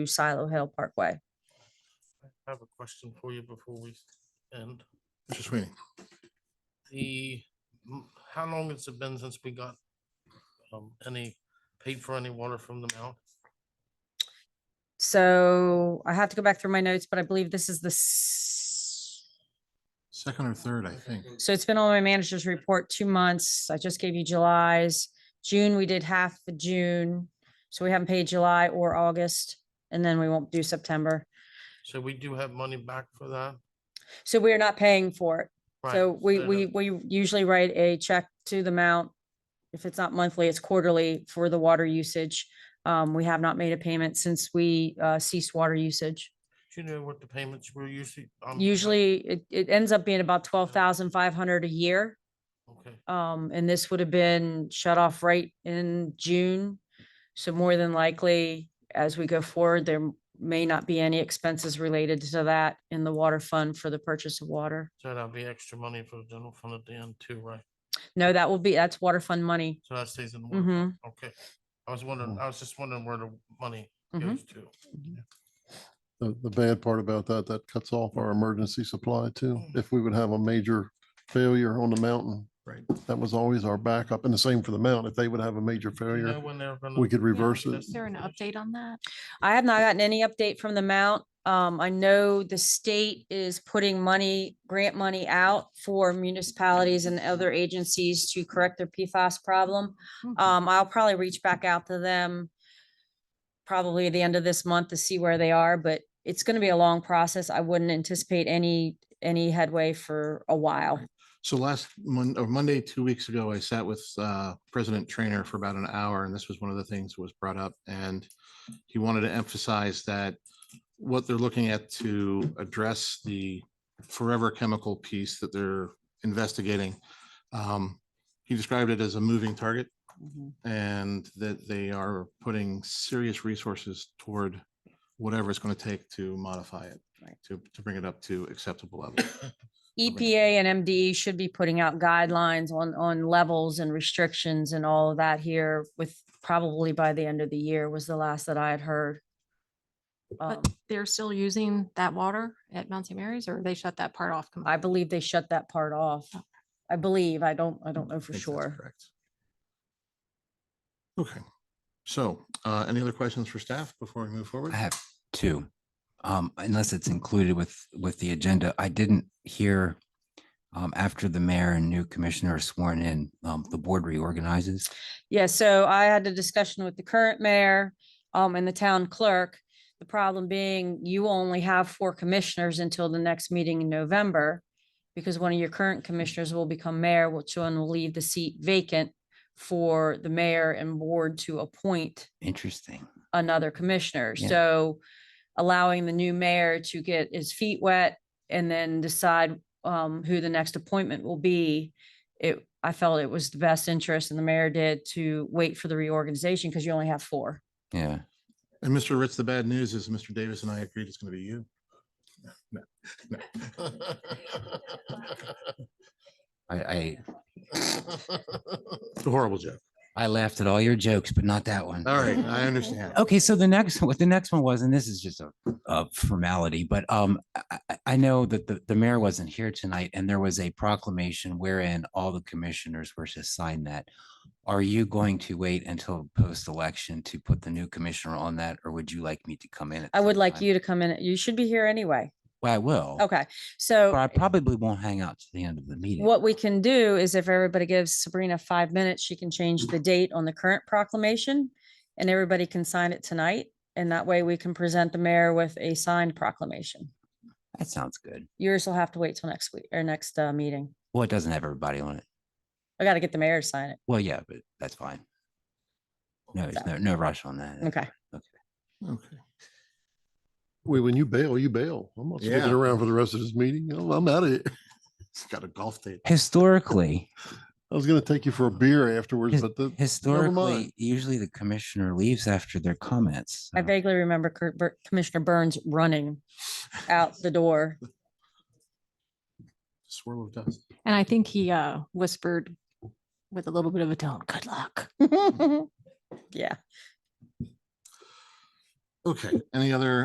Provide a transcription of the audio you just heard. Silo Hill Parkway. I have a question for you before we end. Mr. Sweeney, The, m- how long has it been since we got um, any, paid for any water from the mount? So I have to go back through my notes, but I believe this is the, s- second or third, I think. so it's been on my manager's report two months. I just gave you July's. June, we did half the June. So we haven't paid July or August, and then we won't do September. So we do have money back for that? So we are not paying for it. Right, So we, the- we, we usually write a check to the amount. If it's not monthly, it's quarterly for the water usage. Um, we have not made a payment since we uh, ceased water usage. Do you know what the payments were usually? um, like- Usually it, it ends up being about twelve thousand five hundred a year. Okay, Um, and this would have been shut off right in June. So more than likely, as we go forward, there may not be any expenses related to that in the water fund for the purchase of water. so that'll be extra money for the general fund at the end too, right? No, that will be, that's water fund money. So that stays in, the water. hmm okay. I was wondering, I was just wondering where the money Mhm. goes to. The, the bad part about that, that cuts off our emergency supply too. If we would have a major failure on the mountain. Right. That was always our backup and the same for the mountain. If they would have a major Do you know failure, when they're gonna- we could reverse it. Is there an update on that? I have not gotten any update from the Mount. Um, I know the state is putting money, grant money out for municipalities and other agencies to correct their PFAS problem. Mhm. Um, I'll probably reach back out to them probably the end of this month to see where they are, but it's gonna be a long process. I wouldn't anticipate any, any headway for a while. So last Mon- or Monday, two weeks ago, I sat with uh, President Trainer for about an hour, and this was one of the things that was brought up. And he wanted to emphasize that what they're looking at to address the forever chemical piece that they're investigating. um, He described it as a moving target and that they are putting serious resources toward whatever it's going to take to modify it, Right. to, to bring it up to acceptable level. Okay. EPA E and MDE should be putting out guidelines on, on levels and restrictions and all of that here with probably by the end of the year was the last that I had heard. Um, But they're still using that water at Mount St. Mary's or they shut that part off? I completely? believe they shut that part off. I believe, I don't, I don't know for think that's sure. correct. Okay, so uh, any other questions for staff before we move forward? I have two, um, unless it's included with, with the agenda. I didn't hear, um, after the mayor and new commissioner are sworn in, um, the board reorganizes. Yeah, so I had a discussion with the current mayor, um, and the town clerk. The problem being you only have four commissioners until the next meeting in November. Because one of your current commissioners will become mayor, which one will leave the seat vacant for the mayor and board to appoint Interesting. another commissioner. Yeah. So allowing the new mayor to get his feet wet and then decide um who the next appointment will be. It, I felt it was the best interest and the mayor did to wait for the reorganization because you only have four. Yeah. And Mr. Ritz, the bad news is Mr. Davis and I agreed it's going to be you. No, no. I, I, It's a horrible joke. I laughed at all your jokes, but not that one. All right, I understand. Okay, so the next, what the next one was, and this is just a, a formality, but um, I, I- I know that the, the mayor wasn't here tonight and there was a proclamation wherein all the commissioners were to sign that. Are you going to wait until post-election to put the new commissioner on that, or would you like me to come in? at I would some like time? you to come in. You should be here anyway. Well, I will. Okay, But so I probably won't hang out to the end of the meeting. what we can do is if everybody gives Sabrina five minutes, she can change the date on the current proclamation. And everybody can sign it tonight. And that way we can present the mayor with a signed proclamation. That sounds good. Yours will have to wait till next week or next uh, meeting. Well, it doesn't have everybody on it. I gotta get the mayor to sign it. Well, yeah, but that's fine. No, there's So- no, no rush on that. Okay. Okay. Wait, when you bail, you bail. I'm not sticking Yeah. around for the rest of this meeting. I'm I'm out of here. It's got a golf date. Historically, I was gonna take you for a beer afterwards, His- but the, Historically, usually the commissioner leaves after their comments. I so- vaguely remember Cur- Bur- Commissioner Burns running out the door. Swirl of dust. And I think he uh, whispered with a little bit of a tone, good luck. Yeah, Okay, any other